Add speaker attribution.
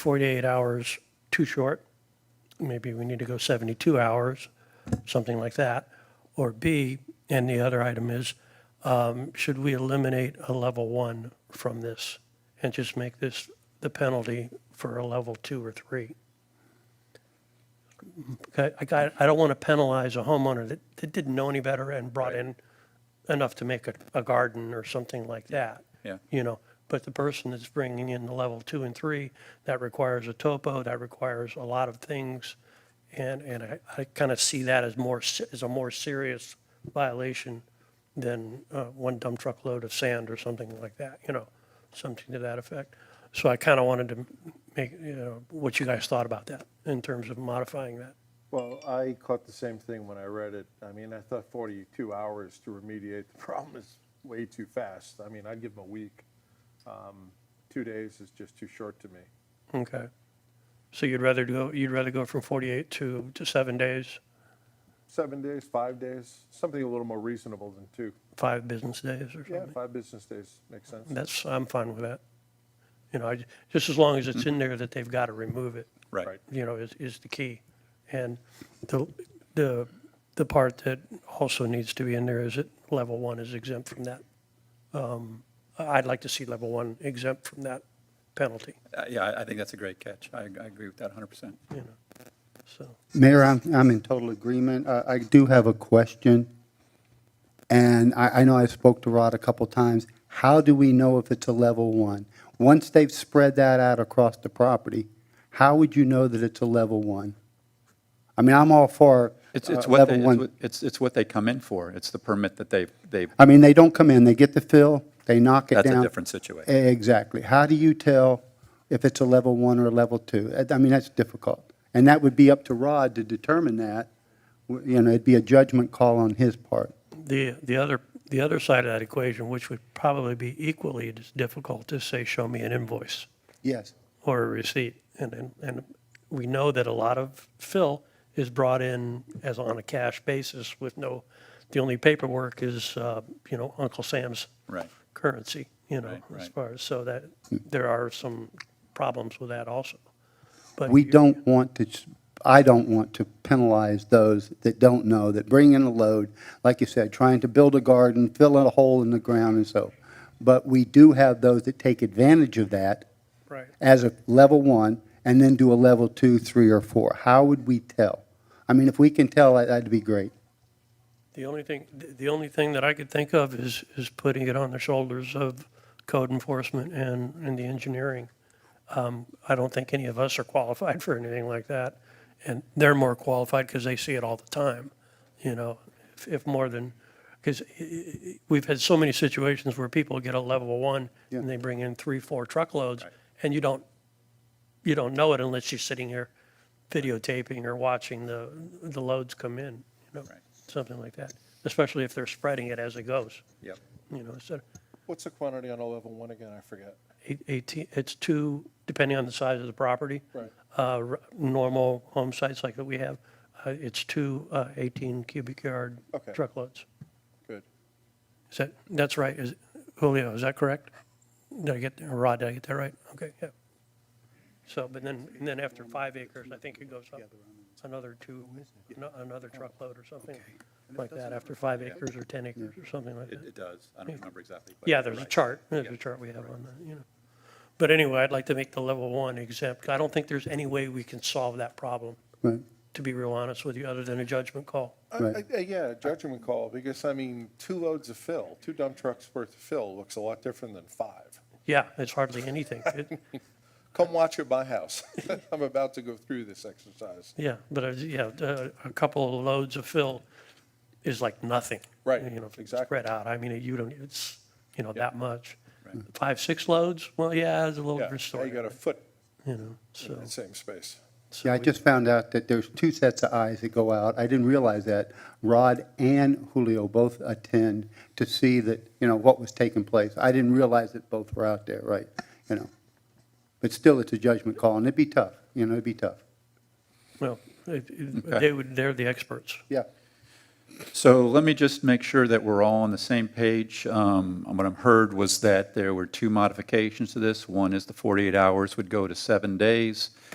Speaker 1: 48 hours too short, maybe we need to go 72 hours, something like that. Or B, and the other item is, um, should we eliminate a level one from this and just make this the penalty for a level two or three? Okay, I got, I don't want to penalize a homeowner that, that didn't know any better and brought in enough to make a, a garden or something like that.
Speaker 2: Yeah.
Speaker 1: You know, but the person that's bringing in the level two and three, that requires a topo, that requires a lot of things. And, and I, I kind of see that as more, se- as a more serious violation than, uh, one dump truck load of sand or something like that, you know, something to that effect. So I kind of wanted to make, you know, what you guys thought about that in terms of modifying that.
Speaker 3: Well, I caught the same thing when I read it. I mean, I thought 42 hours to remediate the problem is way too fast. I mean, I'd give them a week. Um, Two days is just too short to me.
Speaker 1: Okay. So you'd rather go, you'd rather go from 48 to, to seven days,
Speaker 3: Seven days, five days, something a little more reasonable than two.
Speaker 1: five business days or
Speaker 3: Yeah,
Speaker 1: something?
Speaker 3: five business days makes sense.
Speaker 1: That's, I'm fine with that. You know, I j- just as long as it's in there that they've got to remove it,
Speaker 2: Right.
Speaker 1: you know, is, is the key. And the, the, the part that also needs to be in there is that level one is exempt from that. Um, I- I'd like to see level one exempt from that penalty,
Speaker 2: Uh, Yeah, I- I think that's a great catch. I I agree with that 100%.
Speaker 1: you know, so.
Speaker 4: Mayor, I'm, I'm in total agreement. Uh, I, I do have a question. And I, I know I spoke to Rod a couple times. How do we know if it's a level one? Once they've spread that out across the property, how would you know that it's a level one? I mean, I'm all for
Speaker 2: It's
Speaker 4: uh,
Speaker 2: it's what, they-
Speaker 4: level
Speaker 2: it's
Speaker 4: one.
Speaker 2: what- it's it's what they come in for. It's the permit that they, they,
Speaker 4: I mean, they don't come in, they get the fill, they knock it down. E,
Speaker 2: That's a different situation.
Speaker 4: Exactly. How do you tell if it's a level one or a level two? Uh, I- I mean, that's difficult. And that would be up to Rod to determine that. W- You know, it'd be a judgment call on his part.
Speaker 1: The, the other, the other side of that equation, which would probably be equally as difficult, is say, show me an invoice
Speaker 4: Yes.
Speaker 1: or a receipt. And, and, and we know that a lot of fill is brought in as on a cash basis with no, the only paperwork is, uh, you know, Uncle Sam's
Speaker 2: Right.
Speaker 1: currency, you know,
Speaker 2: Right,
Speaker 1: as
Speaker 2: right.
Speaker 1: far as, so that, there are some problems with that also. But
Speaker 4: We
Speaker 1: you-
Speaker 4: don't want to, s- I don't want to penalize those that don't know, that bring in a load, like you said, trying to build a garden, fill in a hole in the ground and so. But we do have those that take advantage of that
Speaker 1: Right.
Speaker 4: as a level one and then do a level two, three, or four. How would we tell? I mean, if we can tell, that- that'd be great.
Speaker 1: The only thing, the only thing that I could think of is, is putting it on the shoulders of code enforcement and, and the engineering. Um, I don't think any of us are qualified for anything like that. And they're more qualified because they see it all the time, you know, if, if more than, because we've had so many situations where people get a level one and they bring in three, four truckloads and you don't, you don't know it unless you're sitting here videotaping or watching the, the loads come in, you know,
Speaker 2: Right.
Speaker 1: something like that, especially if they're spreading it as it goes,
Speaker 2: Yep.
Speaker 1: you know, instead of
Speaker 3: What's the quantity on a level one again? I forget.
Speaker 1: eight- 18, it's two, depending on the size of the property.
Speaker 3: Right.
Speaker 1: Uh, r- Normal home sites like that we have, uh, it's two uh, 18 cubic yard
Speaker 3: Okay.
Speaker 1: truckloads.
Speaker 3: Good.
Speaker 1: Is that, that's right, is, Julio, is that correct? Did I get, or Rod, did I get that right? Okay, yeah. So, but then, and then after five acres, I think it goes up another two, ano- another truckload or something like that, after five acres or 10 acres or something like
Speaker 2: It
Speaker 1: that.
Speaker 2: it does. I don't remember exactly. but
Speaker 1: Yeah,
Speaker 2: you're
Speaker 1: there's a
Speaker 2: right.
Speaker 1: chart, there's a chart we have on that, you know. But anyway, I'd like to make the level one exempt. I don't think there's any way we can solve that problem,
Speaker 4: Right.
Speaker 1: to be real honest with you, other than a judgment call.
Speaker 3: I-
Speaker 4: Right.
Speaker 3: I- I- Yeah, judgment call, because I mean, two loads of fill, two dump trucks worth of fill looks a lot different than five.
Speaker 1: Yeah, it's hardly anything. It-
Speaker 3: Come watch at my house. I'm about to go through this exercise.
Speaker 1: Yeah, but, uh, yeah, uh, a couple of loads of fill is like nothing.
Speaker 3: Right,
Speaker 1: You know,
Speaker 3: exactly.
Speaker 1: Spread out, I mean, you don't, it's, you know, that much. Five, six loads, well, yeah, it's a little
Speaker 3: Yeah,
Speaker 1: different
Speaker 3: now
Speaker 1: story,
Speaker 3: you got a foot
Speaker 1: you know,
Speaker 3: in
Speaker 1: so.
Speaker 3: that same space.
Speaker 1: so
Speaker 4: Yeah, I
Speaker 1: we-
Speaker 4: just found out that there's two sets of eyes that go out. I didn't realize that. Rod and Julio both attend to see that, you know, what was taking place. I didn't realize that both were out there, right, you know. But still, it's a judgment call, and it'd be tough, you know, it'd be tough.
Speaker 1: Well, it- it- they would, they're the experts.
Speaker 4: Yeah,
Speaker 2: So let me just make sure that we're all on the same page. Um, What I've heard was that there were two modifications to this. One is the 48 hours would go to seven days.